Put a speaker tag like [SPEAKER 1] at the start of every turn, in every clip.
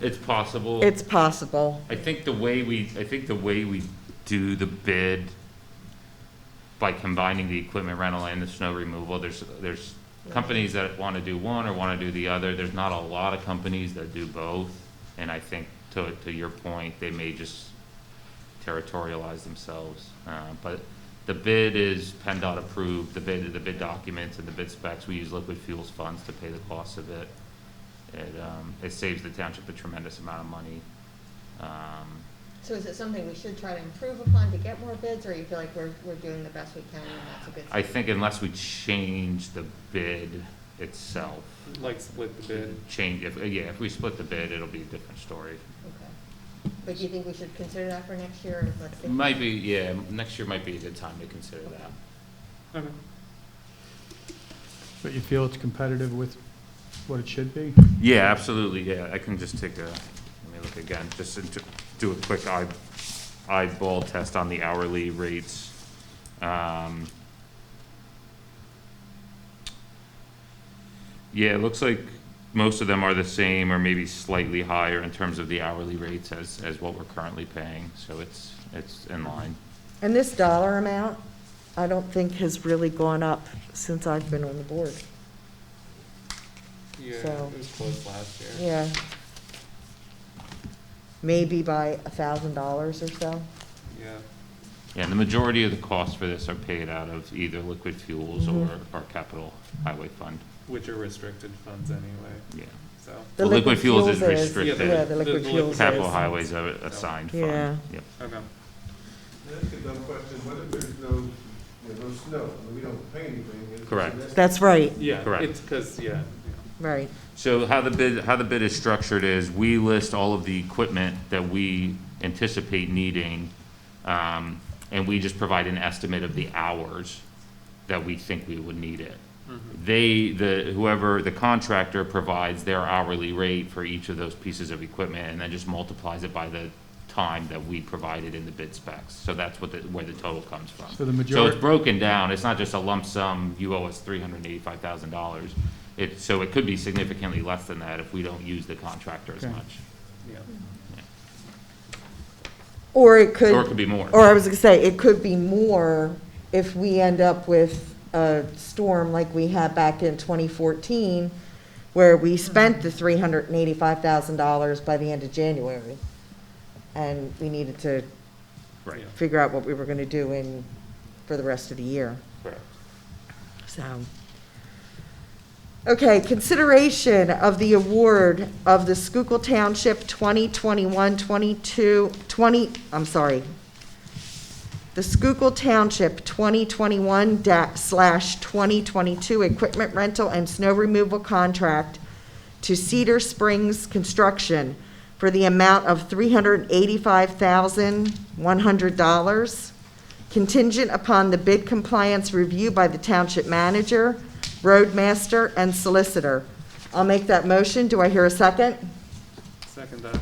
[SPEAKER 1] It's possible.
[SPEAKER 2] It's possible.
[SPEAKER 1] I think the way we, I think the way we do the bid by combining the equipment rental and the snow removal, there's, there's companies that want to do one or want to do the other. There's not a lot of companies that do both. And I think to, to your point, they may just territorialize themselves. Uh, But the bid is PennDOT approved, the bid, the bid documents and the bid specs. We use liquid fuels funds to pay the cost of it. It, um, it saves the township a tremendous amount of money. Um,
[SPEAKER 3] So is it something we should try to improve upon to get more bids, or you feel like we're, we're doing the best we can and that's a good?
[SPEAKER 1] I think unless we change the bid itself,
[SPEAKER 4] Like split the bid.
[SPEAKER 1] change, if, yeah, if we split the bid, it'll be a different story.
[SPEAKER 3] Okay. But do you think we should consider that for next year, or let's see?
[SPEAKER 1] Might be, yeah, next year might be a good time to consider that.
[SPEAKER 4] Okay.
[SPEAKER 5] But you feel it's competitive with what it should be?
[SPEAKER 1] Yeah, absolutely, yeah, I can just take a, let me look again, just to do a quick eye, eyeball test on the hourly rates. Um, Yeah, it looks like most of them are the same or maybe slightly higher in terms of the hourly rates as, as what we're currently paying, so it's, it's in line.
[SPEAKER 2] And this dollar amount, I don't think has really gone up since I've been on the board.
[SPEAKER 4] Yeah,
[SPEAKER 2] So-
[SPEAKER 4] it was close last year.
[SPEAKER 2] Yeah. Maybe by a thousand dollars or so.
[SPEAKER 4] Yeah.
[SPEAKER 1] Yeah, and the majority of the costs for this are paid out of either liquid fuels or,
[SPEAKER 2] Mhm.
[SPEAKER 1] or capital highway fund,
[SPEAKER 4] Which are restricted funds anyway.
[SPEAKER 1] yeah.
[SPEAKER 4] So
[SPEAKER 2] The
[SPEAKER 1] Well, liquid fuels is
[SPEAKER 4] restricted.
[SPEAKER 2] Yeah, the
[SPEAKER 4] The- the
[SPEAKER 2] liquid
[SPEAKER 4] liquid
[SPEAKER 2] fuels is.
[SPEAKER 1] Capital Highways are assigned fund.
[SPEAKER 2] Yeah.
[SPEAKER 1] Yep.
[SPEAKER 4] okay.
[SPEAKER 6] That's a dumb question, what if there's no, you know, no snow, I mean, we don't pay anything? It's-
[SPEAKER 1] Correct.
[SPEAKER 6] that's-
[SPEAKER 2] That's right,
[SPEAKER 4] Yeah.
[SPEAKER 1] Correct.
[SPEAKER 4] It's because yeah.
[SPEAKER 2] right.
[SPEAKER 1] So how the bid, how the bid is structured is, we list all of the equipment that we anticipate needing, um, and we just provide an estimate of the hours that we think we would need it. They, the, whoever, the contractor provides their hourly rate for each of those pieces of equipment, and then just multiplies it by the time that we provided in the bid specs. So that's what the, where the total comes from.
[SPEAKER 5] So the
[SPEAKER 1] So it's
[SPEAKER 5] majority,
[SPEAKER 1] broken down, it's not just a lump sum, you owe us three hundred and eighty-five thousand dollars. It, so it could be significantly less than that if we don't use the contractor as
[SPEAKER 5] Okay.
[SPEAKER 1] much,
[SPEAKER 4] Yeah. Yeah.
[SPEAKER 2] Or
[SPEAKER 1] or
[SPEAKER 2] it
[SPEAKER 1] it
[SPEAKER 2] could,
[SPEAKER 1] could be more.
[SPEAKER 2] or I was gonna say, it could be more if we end up with a storm like we had back in twenty fourteen, where we spent the three hundred and eighty-five thousand dollars by the end of January. And we needed to
[SPEAKER 1] Right,
[SPEAKER 4] Yeah.
[SPEAKER 2] figure out what we were gonna do in, for the rest of the year.
[SPEAKER 1] correct.
[SPEAKER 2] So. Okay, consideration of the award of the Schuylkill Township 2021, 22, 20, I'm sorry. The Schuylkill Township 2021 da- slash 2022 Equipment Rental and Snow Removal Contract to Cedar Springs Construction for the amount of $385,100 contingent upon the bid compliance review by the township manager, roadmaster, and solicitor. I'll make that motion. Do I hear a second?
[SPEAKER 4] Second that.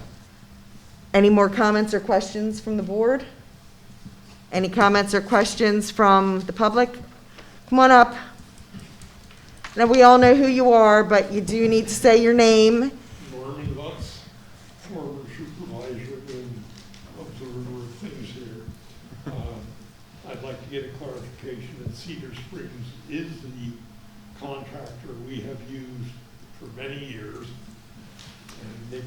[SPEAKER 2] Any more comments or questions from the board? Any comments or questions from the public? Come on up. Now, we all know who you are, but you do need to say your name.
[SPEAKER 7] Marty Lutz, former supervisor and observer of things here. Um, I'd like to get a clarification that Cedar Springs is the contractor we have used for many years. And Nick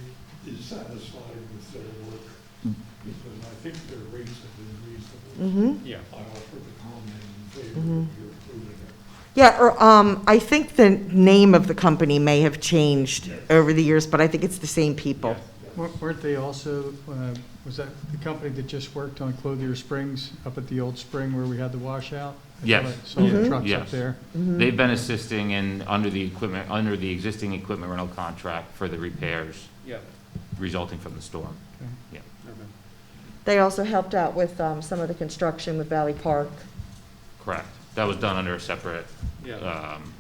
[SPEAKER 7] is satisfied with their work because I think their rates have been reasonable.
[SPEAKER 2] Mm-hmm.
[SPEAKER 4] Yeah.
[SPEAKER 7] I offer the comment in favor of your approving it.
[SPEAKER 2] Yeah, or, um, I think the name of the company may have changed over the years, but I think it's the same people.
[SPEAKER 5] Wer- weren't they also, uh, was that the company that just worked on Clothier Springs up at the old spring where we had the washout? I thought
[SPEAKER 1] Yes.
[SPEAKER 5] I Saw the
[SPEAKER 2] Mhm.
[SPEAKER 5] trucks up
[SPEAKER 1] Yes.
[SPEAKER 5] there.
[SPEAKER 1] They've been assisting in, under the equipment, under the existing equipment rental contract for the repairs
[SPEAKER 4] Yeah.
[SPEAKER 1] resulting from the storm.
[SPEAKER 5] Okay.
[SPEAKER 4] Okay.
[SPEAKER 2] They also helped out with, um, some of the construction with Valley Park.
[SPEAKER 1] Correct. That was done under a separate,
[SPEAKER 4] Yeah.
[SPEAKER 1] um,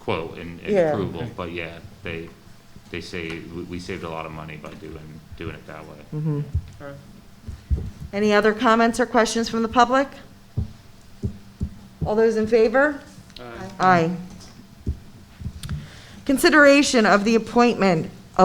[SPEAKER 1] quote and and
[SPEAKER 2] Yeah.
[SPEAKER 1] approval, but yeah, they, they say, we, we saved a lot of money by doing, doing it that way.
[SPEAKER 2] Mhm.
[SPEAKER 4] All right.
[SPEAKER 2] Any other comments or questions from the public? All those in favor?
[SPEAKER 4] Uh,
[SPEAKER 2] Aye. Consideration of the appointment